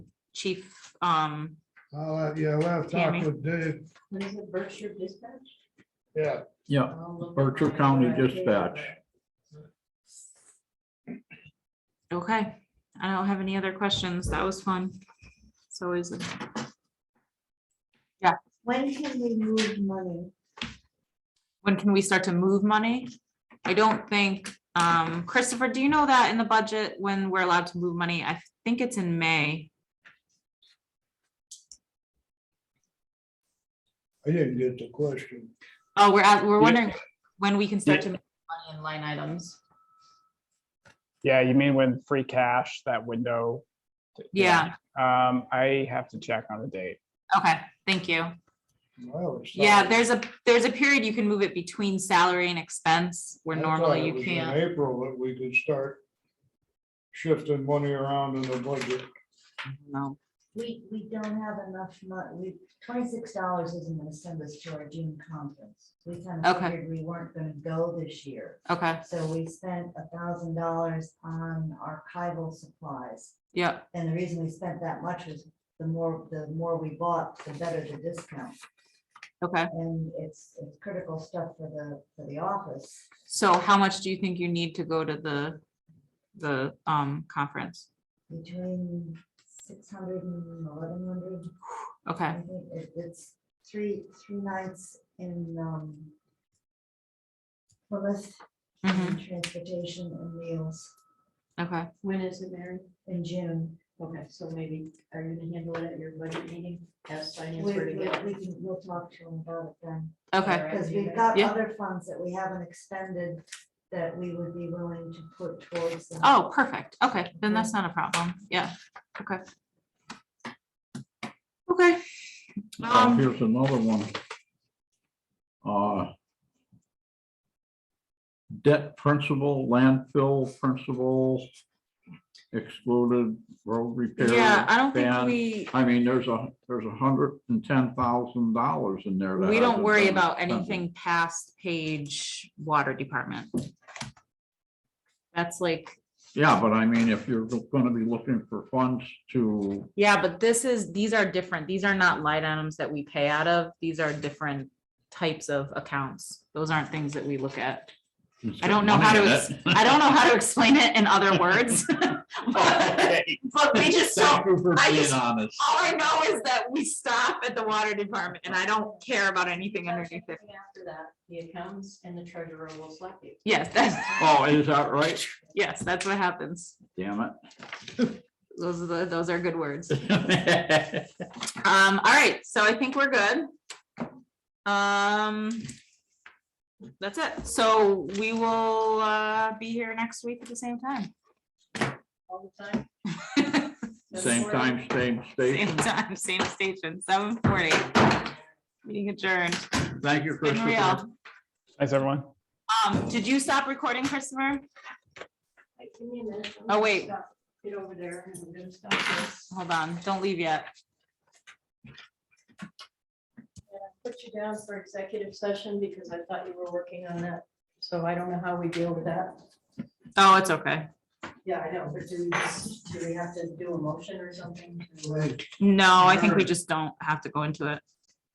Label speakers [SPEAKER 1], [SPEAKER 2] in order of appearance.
[SPEAKER 1] Chief, um,
[SPEAKER 2] I'll, have- yeah, we'll have to talk
[SPEAKER 1] Tammy?
[SPEAKER 2] with Dave.
[SPEAKER 3] What is it, Berkshire Dispatch?
[SPEAKER 2] Yeah,
[SPEAKER 4] Yeah,
[SPEAKER 3] I'll look
[SPEAKER 4] Berkshire
[SPEAKER 3] at my
[SPEAKER 4] County
[SPEAKER 3] RFK.
[SPEAKER 4] Dispatch.
[SPEAKER 1] okay, I don't have any other questions. That was fun. It's always, a-
[SPEAKER 3] When can we move money?
[SPEAKER 1] when can we start to move money? I don't think, um, Christopher, do you know that in the budget when we're allowed to move money? I think it's in May.
[SPEAKER 2] I didn't get the question.
[SPEAKER 1] Oh, we're at, we're
[SPEAKER 5] Yeah.
[SPEAKER 1] wondering when we can start
[SPEAKER 5] Yeah.
[SPEAKER 1] to move money in line items.
[SPEAKER 5] Yeah, you mean when free cash, that window?
[SPEAKER 1] Yeah,
[SPEAKER 5] Um, I have to check on the date.
[SPEAKER 1] okay, thank you.
[SPEAKER 2] I always thought-
[SPEAKER 1] Yeah, there's a, there's a period you can move it between salary and expense where
[SPEAKER 2] I thought it
[SPEAKER 1] normally you
[SPEAKER 2] was in
[SPEAKER 1] can't.
[SPEAKER 2] April that we could start shifting money around in the budget.
[SPEAKER 1] No.
[SPEAKER 3] We, we don't have enough money, we, twenty-six dollars isn't gonna send us to our June conference. We kind of
[SPEAKER 1] Okay.
[SPEAKER 3] figured we weren't gonna go this year,
[SPEAKER 1] Okay,
[SPEAKER 3] so we spent a thousand dollars on archival supplies.
[SPEAKER 1] yeah,
[SPEAKER 3] And the reason we spent that much was the more, the more we bought, the better the discount.
[SPEAKER 1] okay.
[SPEAKER 3] And it's, it's critical stuff for the, for the office.
[SPEAKER 1] So how much do you think you need to go to the, the, um, conference?
[SPEAKER 3] Between six hundred and eleven hundred.
[SPEAKER 1] Okay,
[SPEAKER 3] I think it- It's three, three nights in, um, Plymouth,
[SPEAKER 1] mhm,
[SPEAKER 3] and transportation and meals
[SPEAKER 1] okay,
[SPEAKER 6] When is it, Mary?
[SPEAKER 3] in June.
[SPEAKER 6] Okay, so maybe, are you gonna handle it at your budget meeting? Ask
[SPEAKER 3] We,
[SPEAKER 6] finance
[SPEAKER 3] we,
[SPEAKER 6] where to
[SPEAKER 3] we
[SPEAKER 6] get it?
[SPEAKER 3] can, we'll talk to them about it then.
[SPEAKER 1] okay,
[SPEAKER 6] Alright,
[SPEAKER 3] Because
[SPEAKER 6] do
[SPEAKER 3] we've
[SPEAKER 6] that.
[SPEAKER 3] got
[SPEAKER 1] Yeah.
[SPEAKER 3] other funds that we haven't expended that we would be willing to put towards. them.
[SPEAKER 1] oh, perfect, okay, then that's not a problem, yeah, okay. Okay.
[SPEAKER 4] Oh,
[SPEAKER 1] Um,
[SPEAKER 4] here's another one. Uh, Debt principal, landfill principal, excluded road repair.
[SPEAKER 1] yeah, uh, I don't think
[SPEAKER 4] ban.
[SPEAKER 1] we,
[SPEAKER 4] I mean, there's a, there's a hundred and ten thousand dollars in there. that
[SPEAKER 1] we don't
[SPEAKER 4] hasn't
[SPEAKER 1] worry
[SPEAKER 4] been
[SPEAKER 1] about
[SPEAKER 4] spent.
[SPEAKER 1] anything past page water department. That's like
[SPEAKER 4] Yeah, but I mean, if you're gonna be looking for funds to,
[SPEAKER 1] Yeah, but this is, these are different. These are not light items that we pay out of. These are different types of accounts. Those aren't things that we look at. I don't know how to, ex- I don't know how to explain it in other words. But but we just don't,
[SPEAKER 4] Thank you for
[SPEAKER 1] I
[SPEAKER 4] being
[SPEAKER 1] just-
[SPEAKER 4] honest.
[SPEAKER 1] all I know is that we stop at the water department and I don't care about anything underneath it.
[SPEAKER 6] After that, the accountants and the treasurer will slap you.
[SPEAKER 1] Yes, that's,
[SPEAKER 4] Oh, is that right?
[SPEAKER 1] yes, that's what happens.
[SPEAKER 4] Damn
[SPEAKER 1] Those are, the- those are good words.
[SPEAKER 4] it.
[SPEAKER 1] Um, all right, so I think we're good. Um. That's it. So we will uh be here next week at the same time.
[SPEAKER 6] All the time.
[SPEAKER 4] Same time, same
[SPEAKER 1] Same
[SPEAKER 4] station.
[SPEAKER 1] time, same station, seven forty. Meeting adjourned.
[SPEAKER 4] Thank you,
[SPEAKER 1] Been
[SPEAKER 4] Christopher.
[SPEAKER 1] real.
[SPEAKER 5] Thanks, everyone.
[SPEAKER 1] Um, did you stop recording, Christopher?
[SPEAKER 6] Give me a minute. I'm
[SPEAKER 1] Oh,
[SPEAKER 6] gonna
[SPEAKER 1] wait.
[SPEAKER 6] stop- Get over there and I'm gonna stop this.
[SPEAKER 1] Hold on, don't leave yet.
[SPEAKER 6] Put you down for executive session because I thought you were working on that. So I don't know how we deal with that.
[SPEAKER 1] Oh, it's okay.
[SPEAKER 6] Yeah, I know, but do, do we have to do a motion or something?
[SPEAKER 2] Like,
[SPEAKER 1] No, I think we just don't have to go into it.